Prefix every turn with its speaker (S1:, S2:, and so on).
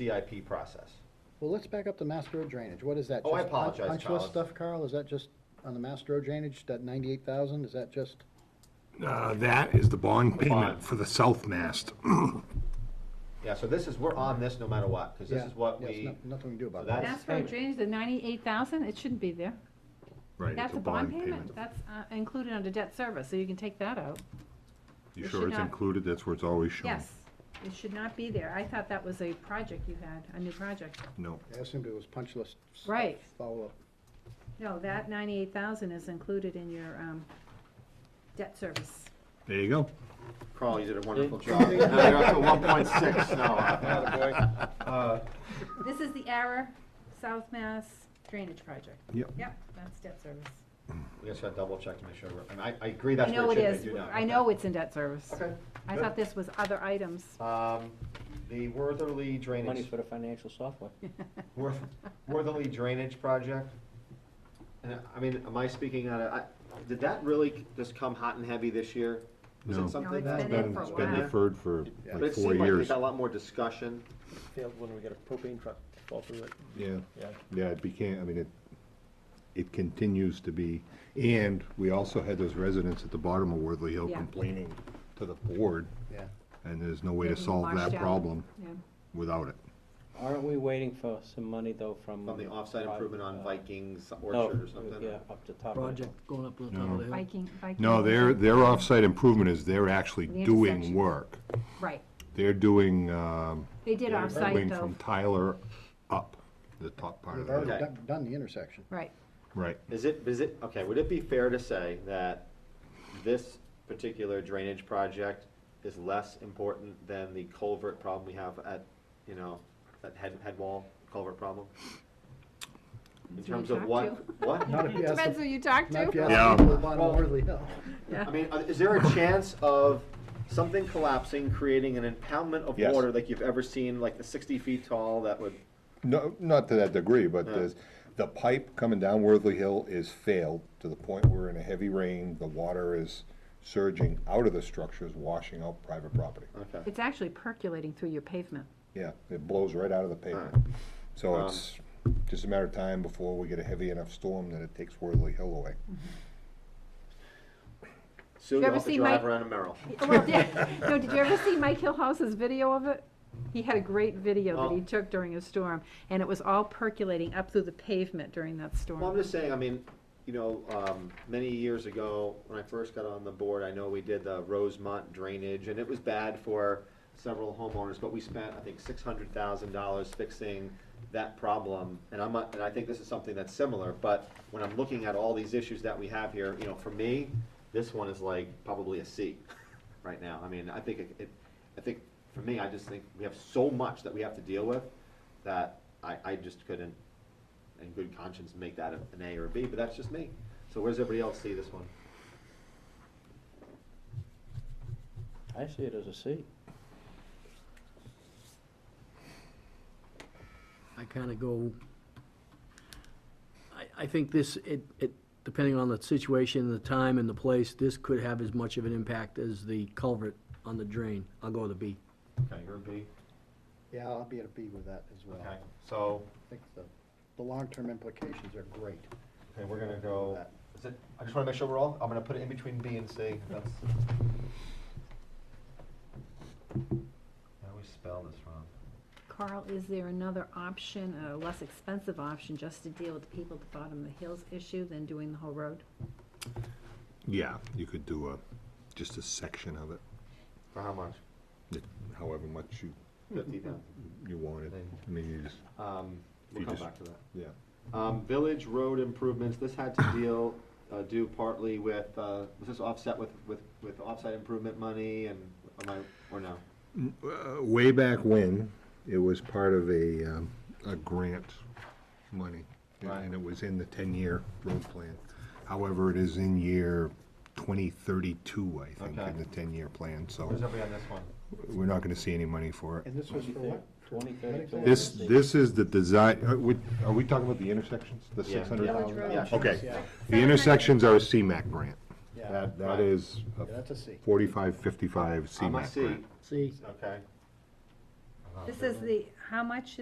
S1: CIP process.
S2: Well, let's back up to Mass Road drainage. What is that?
S1: Oh, I
S2: Just pun-
S1: apologize,
S2: punch
S1: Colin.
S2: list stuff, Carl? Is that just on the Mass Road drainage, that ninety-eight thousand? Is that just?
S3: Uh, That is the bond
S1: Bond.
S3: payment for the south mast.
S1: Yeah, so this is, we're on this no matter what, because this
S2: Yeah,
S1: is what
S2: yes,
S1: we,
S2: no- Nothing we can do about
S1: so
S2: that.
S1: that's-
S4: That's road drainage, the ninety-eight thousand, it shouldn't be there.
S3: Right,
S4: That's a bond payment, that's uh, included under debt service, so you can take that out.
S3: You
S4: It
S3: sure
S4: should
S3: it's
S4: not-
S3: included? That's where it's always shown.
S4: Yes, it should not be there. I thought that was a project you had, a new project.
S3: No.
S2: I assumed it was punch list. stuff,
S4: Right.
S2: Follow-up.
S4: No, that ninety-eight thousand is included in your, um, debt service.
S3: There you go.
S1: Carl, you did a wonderful job. Now you're up to one point six now. Uh,
S4: This is the Ara South Mass Drainage Project.
S3: Yep.
S4: Yep, that's debt service.
S1: We just gotta double check to make sure, we're- and I, I agree
S4: I
S1: that's
S4: know
S1: where
S4: it
S1: it should
S4: is,
S1: be. I
S4: I know it's in debt service.
S1: Okay.
S4: I
S1: good.
S4: thought this was other items.
S1: Um, the Wortherly
S5: Money
S1: drainage,
S5: for the financial software.
S1: Worth, Wortherly drainage project. And I- I mean, am I speaking out of, I, did that really just come hot and heavy this year? Was
S3: No.
S1: it
S3: No,
S1: something
S4: it's
S1: that?
S4: been there for a
S3: It's been
S4: while.
S3: deferred for
S1: But
S2: Yeah.
S3: like
S1: it
S3: four
S1: seemed like we
S3: years.
S1: got a lot more discussion.
S6: failed when we got a propane truck fall through it,
S3: Yeah,
S6: yeah.
S3: yeah, it became, I mean, it, it continues to be. And we also had those residents at the bottom of Worthley Hill
S4: Yeah.
S3: complaining to the board,
S2: Yeah.
S3: and there's no way to
S4: Getting
S3: solve
S4: washed
S3: that
S4: out.
S3: problem
S4: Yeah.
S3: without it.
S5: Aren't we waiting for some money though from?
S1: On the offsite improvement on
S5: uh,
S1: Vikings
S5: no,
S1: Orchard or something?
S5: Yeah, up the top. of it.
S6: Project going up to the top of the hill.
S4: Viking, Viking.
S3: No, their, their off-site improvement is they're actually
S4: The
S3: doing
S4: intersection.
S3: work.
S4: Right,
S3: They're doing, um,
S4: they did
S1: Yeah,
S4: offsite
S3: going
S4: though,
S3: from Tyler up, the top part
S2: We've
S3: of the hill.
S2: already
S1: Okay.
S2: done- done the intersection.
S4: right.
S3: Right,
S1: Is it, is it, okay, would it be fair to say that this particular drainage project is less important than the culvert problem we have at, you know, that head, head wall culvert problem? In
S4: That's who you
S1: terms of
S4: talk
S1: what, what?
S2: Not if you ask,
S4: Depends
S2: the-
S4: who you talk
S2: not if you
S4: to.
S3: Yeah.
S2: ask the people at bottom of Worthley Hill.
S4: Yeah.
S1: I mean, uh, is there a chance of something collapsing, creating an impoundment of
S3: Yes.
S1: water like you've ever seen, like the sixty feet tall that would?
S3: no, not to that degree, but
S1: Yeah.
S3: there's, the pipe coming down Worthley Hill is failed to the point where in a heavy rain, the water is surging out of the structures, washing out private property.
S1: Okay,
S4: It's actually percolating through your pavement.
S3: Yeah, it blows right out of the pavement. So it's just a matter of time before we get a heavy enough storm that it takes Worthley Hill away.
S1: soon
S4: You
S1: you'll
S4: ever
S1: have to
S4: see
S1: drive
S4: Mike-
S1: around a Merrill.
S4: Well, did, no, did you ever see Mike Hillhouse's video of it? He had a great video that he
S1: Oh.
S4: took during a storm, and it was all percolating up through the pavement during that
S1: Well, I'm
S4: storm.
S1: just saying, I mean, you know, um, many years ago, when I first got on the board, I know we did the Rosemont drainage, and it was bad for several homeowners, but we spent, I think, six hundred thousand dollars fixing that problem, and I'm, not- and I think this is something that's similar, but when I'm looking at all these issues that we have here, you know, for me, this one is like probably a C right now, I mean, I think it, it, I think, for me, I just think we have so much that we have to deal with, that I, I just couldn't, in good conscience make that an A or a B, but that's just me. So where does everybody else see this one?
S5: I see it as a C.
S6: I kinda go, I, I think this, it, it, depending on the situation, the time and the place, this could have as much of an impact as the culvert on the drain. I'll go with a B.
S1: Okay, you're a B.
S2: Yeah, I'll be at a B with that as well.
S1: Okay,
S2: I
S1: so,
S2: think the, the long-term implications are great.
S1: okay, we're gonna go, is it, I just wanna make sure we're all, I'm gonna put it in between B and C, that's. I always spell this wrong.
S4: Carl, is there another option, a less expensive option, just to deal with the people at the bottom of the hills issue than doing the whole road?
S3: Yeah, you could do a, just a section of it,
S1: For how much?
S3: however much you,
S1: Fifty thousand.
S3: you wanted. I mean, you just,
S1: Um, we'll
S3: You
S1: come
S3: just-
S1: back to that.
S3: yeah.
S1: Um, village road improvements, this had to deal, uh, do partly with, uh, was this offset with, with, with offsite improvement money and, am I, or no?
S3: Uh, Way back when, it was part of a, um, a grant money, and it was in the ten-year road plan. However, it is in year twenty thirty-two, I think,
S1: Okay.
S3: in the ten-year plan, so
S1: Where's everybody on this one?
S3: we're not gonna see any money for it.
S2: And this was for what?
S5: Twenty thirty-two.
S3: This, this is the design, are we, are we talking about the intersections, the
S1: Yeah.
S3: six hundred thousand?
S4: Village
S1: Yeah,
S4: road.
S1: sure.
S3: Okay, the intersections are a CMAC grant.
S2: Yeah.
S3: That,
S1: Right.
S3: that is a
S2: Yeah, that's a C.
S1: Um,
S3: forty-five, fifty-five
S1: I'm a
S3: CMAC
S1: C,
S3: grant.
S2: C.
S1: okay.
S4: This is the, how much